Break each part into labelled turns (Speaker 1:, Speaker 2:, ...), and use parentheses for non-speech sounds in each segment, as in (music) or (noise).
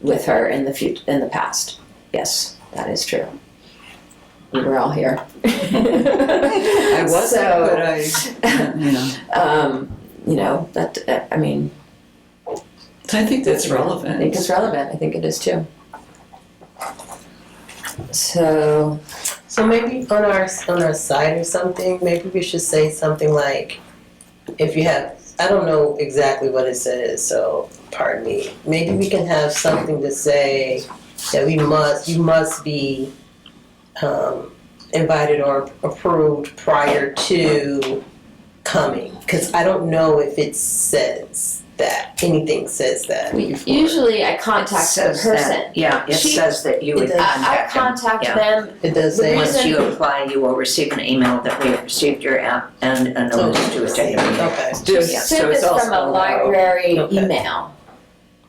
Speaker 1: with her in the fut- in the past. Yes, that is true. We were all here. I
Speaker 2: I wasn't, but I,
Speaker 1: uh,
Speaker 2: (laughs) you know.
Speaker 1: um, you know that uh, I mean,
Speaker 2: I think that's relevant.
Speaker 1: I think it's relevant. I think it is too. So
Speaker 3: So maybe on our on our site or something, maybe we should say something like, if you have, I don't know exactly what it says, so pardon me. Maybe we can have something to say that we must, you must be um, invited or approved prior to coming, because I don't know if it says that anything says that.
Speaker 1: usually I contact the
Speaker 4: says
Speaker 1: person.
Speaker 4: that, yeah, it
Speaker 1: She-
Speaker 4: says that you would
Speaker 3: it does.
Speaker 1: I, I
Speaker 4: contact them.
Speaker 1: contact
Speaker 4: yeah.
Speaker 1: them.
Speaker 3: It does
Speaker 1: The
Speaker 3: say.
Speaker 4: Once
Speaker 1: reason-
Speaker 4: you apply, you will receive an email that we have received your app and a notice to attend. the meeting.
Speaker 3: Okay,
Speaker 2: Just-
Speaker 4: Yeah,
Speaker 1: Sue
Speaker 4: so it's
Speaker 1: is
Speaker 4: all
Speaker 1: from a
Speaker 4: spelled out.
Speaker 1: library
Speaker 3: Okay.
Speaker 1: email.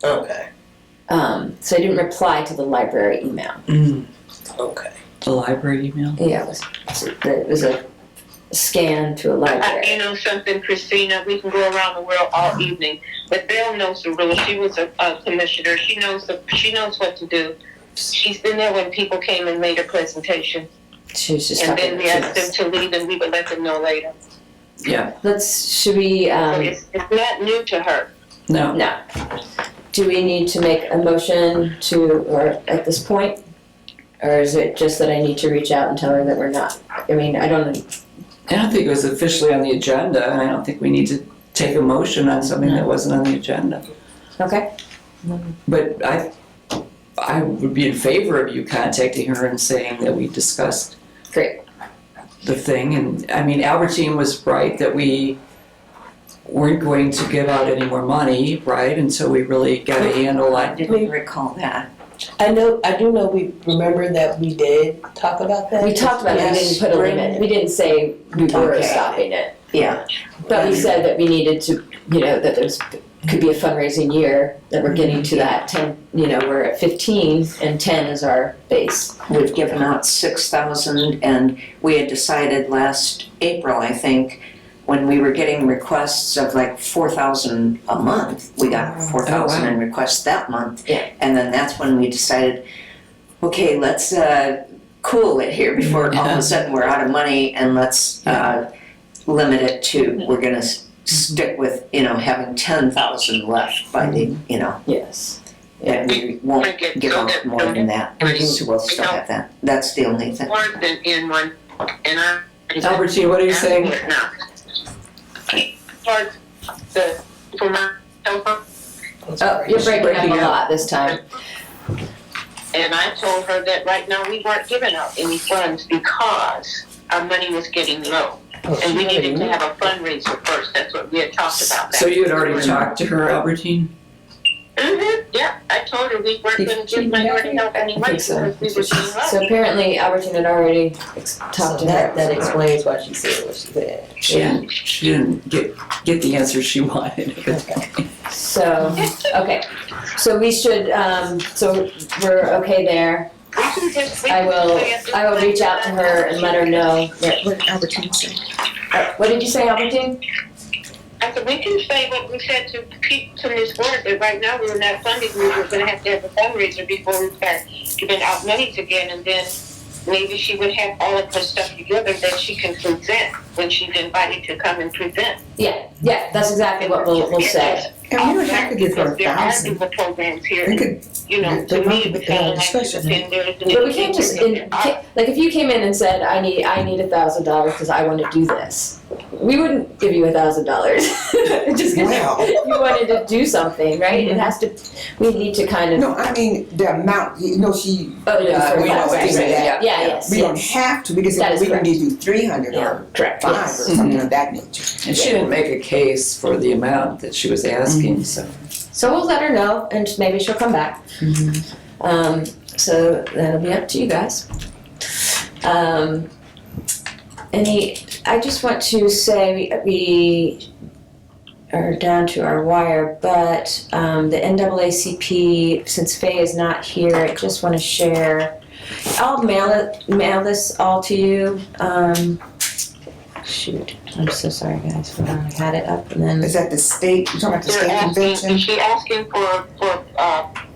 Speaker 3: okay,
Speaker 1: Um, so I didn't reply to the library email.
Speaker 2: Mm,
Speaker 3: okay.
Speaker 2: the library email.
Speaker 1: Yeah, it was, it was a scan to a
Speaker 5: Uh,
Speaker 1: library.
Speaker 5: you know something, Christina, we can go around the world all evening, but Bill knows the rules. She was a, a commissioner. She knows the, she knows what to do. She's been there when people came and made a presentation,
Speaker 1: She was just
Speaker 5: and
Speaker 1: talking
Speaker 5: then we
Speaker 1: to
Speaker 5: asked them
Speaker 1: us.
Speaker 5: to leave, and we would let them know later.
Speaker 1: Let's, should we,
Speaker 5: So
Speaker 1: um,
Speaker 5: it's, it's not new to her.
Speaker 2: No,
Speaker 1: no. Do we need to make a motion to, or at this point? Or is it just that I need to reach out and tell her that we're not? I mean, I don't,
Speaker 2: I don't think it was officially on the agenda, and I don't think we need to take a motion on something that wasn't on the agenda.
Speaker 1: okay,
Speaker 2: But I, I would be in favor of you contacting her and saying that we discussed
Speaker 1: great.
Speaker 2: the thing, and I mean, Albertine was right that we weren't going to give out any more money, right, until we really got a handle
Speaker 4: I
Speaker 2: on.
Speaker 4: didn't recall that.
Speaker 3: I know, I do know we, remember that we did talk about that?
Speaker 1: We talked about it, we
Speaker 3: Yes.
Speaker 1: didn't put a limit, we didn't say we were
Speaker 3: Okay.
Speaker 1: stopping it.
Speaker 4: Yeah.
Speaker 1: But we said that we needed to, you know, that there's, could be a fundraising year, that we're getting to that ten, you know, we're at fifteen and ten is our base.
Speaker 4: We've given out six thousand and we had decided last April, I think, when we were getting requests of like four thousand a month, we got four thousand in requests that month.
Speaker 1: Yeah.
Speaker 4: And then that's when we decided, okay, let's uh cool it here before all of a sudden we're out of money and let's uh limit it to, we're gonna s- stick with, you know, having ten thousand left by the, you know,
Speaker 1: Yes.
Speaker 4: and we won't
Speaker 5: Wanna get-
Speaker 4: give
Speaker 5: so
Speaker 4: out
Speaker 5: that-
Speaker 4: more
Speaker 5: so
Speaker 4: than that.
Speaker 5: Right.
Speaker 4: So we'll still have that. That's the only thing.
Speaker 5: Worse than in one, and I.
Speaker 2: Albertine, what are you saying?
Speaker 5: Now. Towards the, for my cell phone.
Speaker 1: Oh, you're breaking
Speaker 2: breaking
Speaker 1: up a
Speaker 2: up.
Speaker 1: lot this time.
Speaker 5: And I told her that right now we weren't giving out any funds because our money was getting low.
Speaker 1: Oh,
Speaker 5: And we needed to have a fundraiser first, that's what we had talked about
Speaker 2: So
Speaker 5: that.
Speaker 2: you had already talked to her, Albertine?
Speaker 5: hmm yeah, I told her we weren't gonna give minority help any money because we were being
Speaker 1: So
Speaker 5: low.
Speaker 1: apparently Albertine had already ex-
Speaker 3: So
Speaker 1: talked to
Speaker 3: that, that
Speaker 1: her.
Speaker 3: explains why she said what she said.
Speaker 2: She didn't, she didn't get, get the answer she (laughs) wanted.
Speaker 1: So, okay, so we should, um, so we're okay there.
Speaker 5: We can just- we
Speaker 1: I
Speaker 5: can
Speaker 1: will,
Speaker 5: plan this
Speaker 1: I will reach out to her and let her know that,
Speaker 6: What did Albertine say?
Speaker 1: uh, what did you say, Albertine?
Speaker 5: I said, we can say what we said to pe to Ms. Ward, that right now we were not funding, we were gonna have to have a fundraiser before we start giving out monies again, and then maybe she would have all of her stuff together that she can present when she's invited to come and present.
Speaker 1: Yeah, yeah, that's exactly what we'll, we'll say.
Speaker 6: And we would have to give her a
Speaker 5: Because there are
Speaker 6: thousand.
Speaker 5: people programs
Speaker 6: They
Speaker 5: here,
Speaker 6: could,
Speaker 5: you know, to
Speaker 6: they
Speaker 5: me,
Speaker 6: might, but
Speaker 5: it
Speaker 6: they have
Speaker 5: sounds like
Speaker 6: discretion.
Speaker 5: then there's. an
Speaker 1: But we can't just, in, ca- like, if you came in and said, I need, I need a thousand dollars because I want to do this, we wouldn't give you a thousand dollars. (laughs) Just because
Speaker 6: Wow.
Speaker 1: you wanted to do something, right? It has to, we need to kind of,
Speaker 6: no, I mean, the amount, you know, she,
Speaker 1: oh, no,
Speaker 6: Yeah,
Speaker 1: sorry,
Speaker 6: we
Speaker 1: right,
Speaker 6: don't
Speaker 1: right,
Speaker 6: do
Speaker 1: right.
Speaker 6: that.
Speaker 1: Yeah, yes,
Speaker 6: we don't
Speaker 1: yes.
Speaker 6: have to, we can
Speaker 1: That
Speaker 6: say,
Speaker 1: is
Speaker 6: we can
Speaker 1: correct.
Speaker 6: give you three hundred
Speaker 1: Yeah,
Speaker 6: or
Speaker 1: correct,
Speaker 6: five or
Speaker 1: yes. Mm-hmm.
Speaker 6: something of that nature.
Speaker 2: And she didn't make a case for the amount that she was
Speaker 5: Mm-hmm.
Speaker 2: asking, so.
Speaker 1: So we'll let her know and maybe she'll come back. Um, so that'll be up to you guys. Um, any, I just want to say we, we are down to our wire, but um, the NAACP, since Faye is not here, I just want to share. I'll mail it, mail this all to you. Um, shoot, I'm so sorry guys, for I had it up and then.
Speaker 6: Is that the state, you talking about the
Speaker 5: They're
Speaker 6: state
Speaker 5: asking,
Speaker 6: convention?
Speaker 5: is she asking for, for, uh,